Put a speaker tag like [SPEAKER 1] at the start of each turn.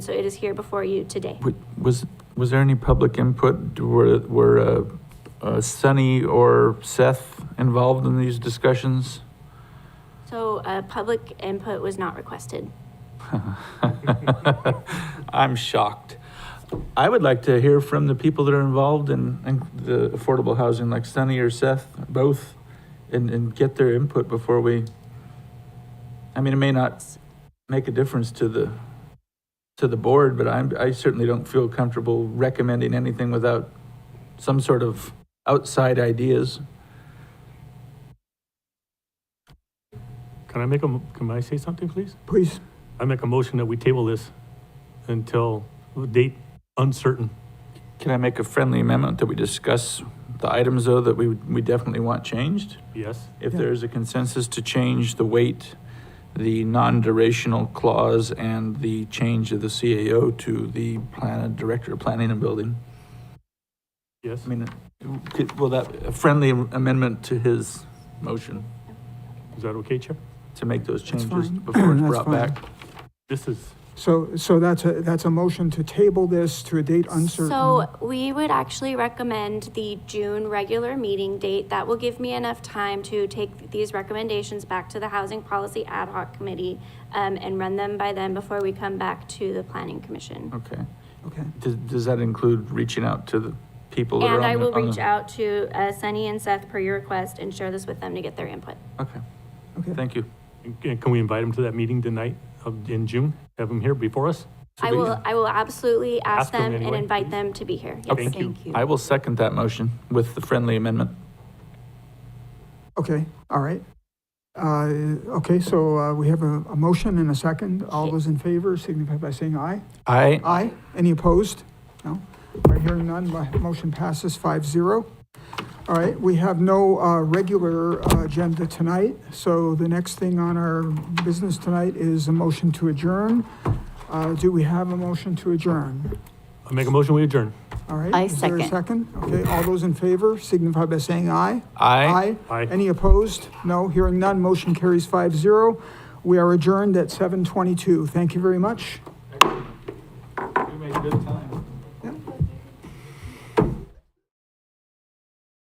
[SPEAKER 1] So it is here before you today.
[SPEAKER 2] Wa- Was, was there any public input? Were, were uh, uh, Sunny or Seth involved in these discussions?
[SPEAKER 1] So uh, public input was not requested.
[SPEAKER 2] I'm shocked. I would like to hear from the people that are involved in, in the affordable housing, like Sunny or Seth, both, and, and get their input before we. I mean, it may not make a difference to the, to the board, but I'm, I certainly don't feel comfortable recommending anything without some sort of outside ideas.
[SPEAKER 3] Can I make a, mo- can I say something, please?
[SPEAKER 2] Please.
[SPEAKER 3] I make a motion that we table this until a date uncertain.
[SPEAKER 2] Can I make a friendly amendment that we discuss the items though that we, we definitely want changed?
[SPEAKER 3] Yes?
[SPEAKER 2] If there is a consensus to change the weight, the non-durational clause, and the change of the CAO to the plan, director of planning and building,
[SPEAKER 3] Yes?
[SPEAKER 2] I mean, could, will that, a friendly amendment to his motion
[SPEAKER 3] Is that okay, Chair?
[SPEAKER 2] to make those
[SPEAKER 4] That's
[SPEAKER 2] changes
[SPEAKER 4] fine.
[SPEAKER 2] before it's
[SPEAKER 4] That's
[SPEAKER 2] brought
[SPEAKER 4] fine.
[SPEAKER 2] back?
[SPEAKER 3] This is,
[SPEAKER 4] So, so that's a, that's a motion to table this to a date uncertain.
[SPEAKER 1] So we would actually recommend the June regular meeting date. That will give me enough time to take these recommendations back to the Housing Policy Ad Hoc Committee um, and run them by them before we come back to the Planning Commission.
[SPEAKER 2] Okay.
[SPEAKER 4] Okay,
[SPEAKER 2] Does, does that include reaching out to the people that are
[SPEAKER 1] And
[SPEAKER 2] on the?
[SPEAKER 1] I will
[SPEAKER 2] on the-
[SPEAKER 1] reach out to uh, Sunny and Seth per your request and share this with them to get their input.
[SPEAKER 2] Okay,
[SPEAKER 4] okay.
[SPEAKER 2] thank you.
[SPEAKER 3] can can we invite him to that meeting tonight of, in June? Have him here before us?
[SPEAKER 2] So
[SPEAKER 1] I
[SPEAKER 2] we-
[SPEAKER 1] will, I will absolutely ask
[SPEAKER 3] Ask them
[SPEAKER 1] them and
[SPEAKER 3] anyway,
[SPEAKER 1] invite
[SPEAKER 3] please.
[SPEAKER 1] them to be here.
[SPEAKER 2] Okay.
[SPEAKER 1] Yes.
[SPEAKER 3] Thank you.
[SPEAKER 2] I will second that motion with the friendly amendment.
[SPEAKER 4] Okay, all right. Uh, okay, so, uh, we have a, a motion and a second. All those in favor signify by saying aye.
[SPEAKER 2] I,
[SPEAKER 4] Aye. Any opposed? No. All right, hearing none, my motion passes five zero. All right, we have no, uh, regular uh, agenda tonight, so the next thing on our business tonight is a motion to adjourn. Uh, do we have a motion to adjourn?
[SPEAKER 3] I make a motion, we adjourn.
[SPEAKER 4] All right.
[SPEAKER 5] I
[SPEAKER 4] is there a
[SPEAKER 5] second.
[SPEAKER 4] second? Okay, all those in favor signify by saying aye.
[SPEAKER 2] I.
[SPEAKER 3] Aye.
[SPEAKER 4] Any opposed? No, hearing none, motion carries five zero. We are adjourned at 7:22. Thank you very much.
[SPEAKER 2] You made good time.